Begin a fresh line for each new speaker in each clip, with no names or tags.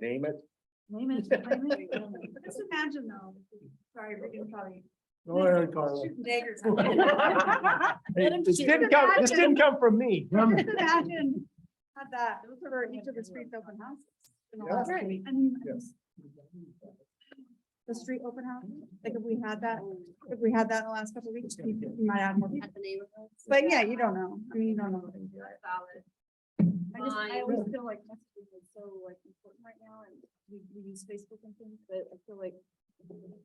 Name it.
Name it, name it. Just imagine though, sorry, we're gonna probably.
Go ahead, Carla.
Shooting daggers. Just
Hey,
Madam
This
Chair.
didn't come, this didn't come from me.
imagine, had that, those were each of the streets open houses. in the
Yeah.
last week. I mean,
Yeah.
The street open house, like if we had that, if we had that in the last couple of weeks, we might add more people. But yeah, you don't know, I mean, you don't know. what they do. I just, I
Mine.
always feel like messaging is so like important right now and we, we use Facebook and things, but I feel like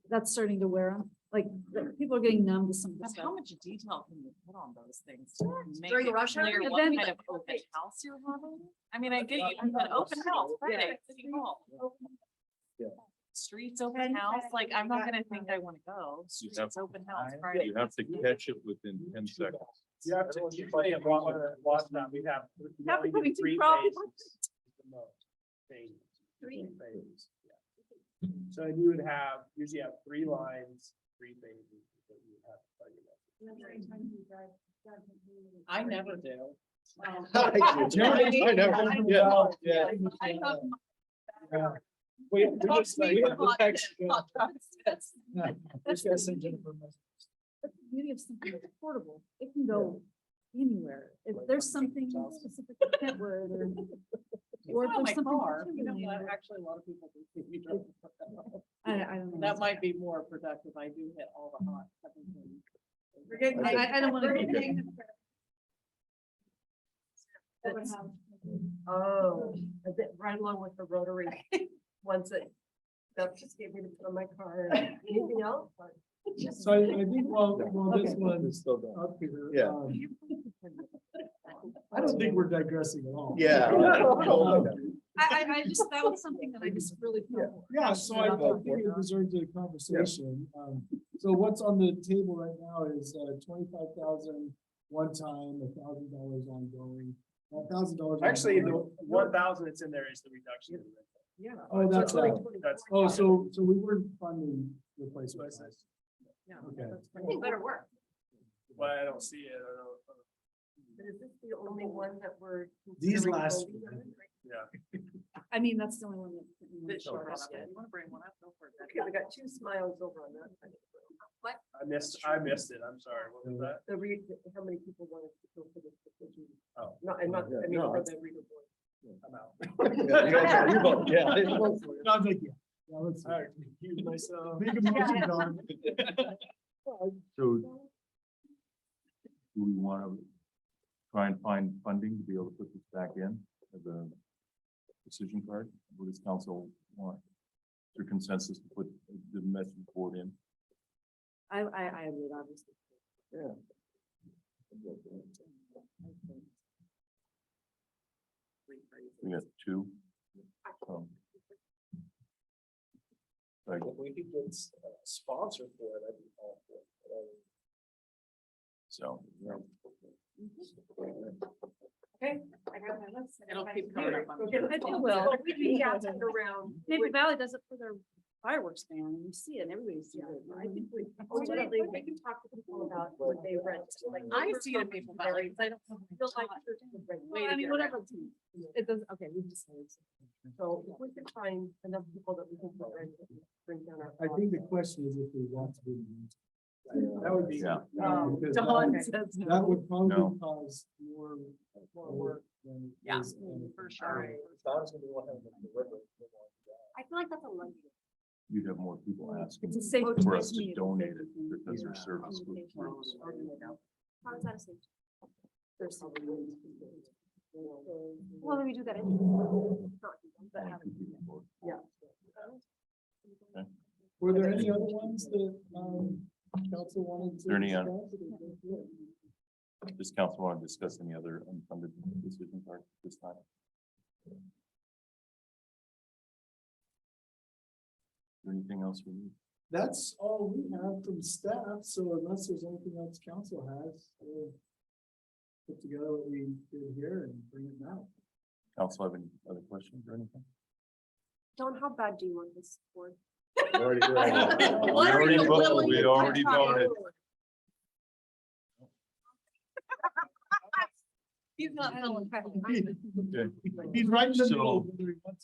that's starting to wear on, like, the- people are getting numb to some of the
But
stuff.
how much detail can you put on those things? to make
During
it
rush hour?
clear
And
What
then-
kind of open house you're having? I mean, I get you, you
Yeah.
an open house, Friday,
Yeah.
city hall.
Yeah.
Streets
Ten
open house, like, I'm not gonna
minutes.
think I wanna go, streets
have-
open house
I-
Friday.
You have to catch it within ten seconds.
You have to keep playing along with it. Last time we have. we
Have
only
to
did
be
three
problem.
phases is the most. Phases. Phases, yeah. So you would have, usually have three lines, three phases. that you would have to play with.
I never do.
I know, yeah, yeah.
I have my
Yeah. We, we just like-
Box me.
Thanks.
podcast.
We just gotta send Jennifer a message.
That's the beauty of something that's portable. It can go anywhere. If
Like
there's
from
something
Jennifer's house.
specific to Kentwood or. Or
Or
if there's
my
something.
car, you know,
particularly
what,
that-
actually, a lot of people do. think you drive a car.
I, I don't know.
That might be more productive. I do hit all the hot. seventeen.
We're getting, I, I- I don't wanna.
We're
get
getting-
into the- Open
That's-
house.
Oh, a bit right along with the rotary. Once it, that just gave me to put on my car. Anything else?
So I I think while, while this
Okay.
one
It's
is
still done.
up here.
Yeah.
um, I don't think we're digressing at all.
Yeah.
Um,
I, I, I just, that was something that I just really felt. for.
Yeah, so I I think it deserves a conversation. Um, so what's on the table right now is uh, twenty-five thousand one time, a thousand dollars ongoing, a thousand dollars.
Actually, the
ongoing.
one thousand that's in there is the reduction. in rent.
Yeah.
Oh, that's
So it's
right.
like- That's.
Oh, so, so we weren't funding replacement.
Replacement.
costs.
Yeah.
Okay.
Better work.
Why I don't see it, I don't, uh,
But is this the only one that we're?
These
considering
last-
voting on?
yeah.
I mean, that's the only one that.
That showed up. If You wanna bring one up? Go for it. Okay, we got two smiles over on that. What?
I missed, I missed it, I'm sorry, what was that?
The re, how many people wanted to go for this decision?
Oh.
Not, and not, I mean,
No,
for
it's-
the reader board.
I'm out.
Yeah, you guys- you both- yeah.
No, I'm like, yeah. Yeah, let's-
I confused myself.
Make a motion, Don.
So. Do we want to try and find funding to be able to put this back in as a decision card? What does council want? Is there consensus to put the message board in?
I, I, I would obviously.
We got two. Um, Like,
If we could get sponsor uh, for it, I'd be all for it.
so.
I got my list.
It'll keep coming up on the-
I think will. Maybe Valley does it for their fireworks ban, and you see it, and everybody's. doing it. I think we-
Ultimately, we
can talk to people
about
what they rent,
Like, I see the people that like, I don't. feel like there's a right way
Well, I
to
mean,
get
whatever.
around.
It does, okay, we've decided.
So if we can find enough people that we can put in, bring down our.
I think the question is if we want to. do the meeting. That would be.
Yeah.
um, because that
Dawn
would-
says no.
That would
No.
probably cause more.
More work.
than
Yeah,
is, um,
for sure.
I feel like that's a lucky.
You'd have more people asking
It's a safe.
for us to
meeting.
donate it because their
Yeah.
service would.
How is that safe?
There's so many ways to do it.
Well, then we do that.
But um, how- Yeah.
Were there any other ones that, um, council wanted to?
There any, uh,
discuss? Yeah.
Does council want to discuss any other unfunded decision part this time? Anything else we need?
That's all we have from staff, so unless there's anything else council has, we'll put together what we did here and bring it now.
Council have any other questions or anything?
Don, how bad do you want this for?
We
are
already
you
voted-
willing
We
to
already voted.
He's not.
Okay.
He's right in the
So-
middle. whether he wants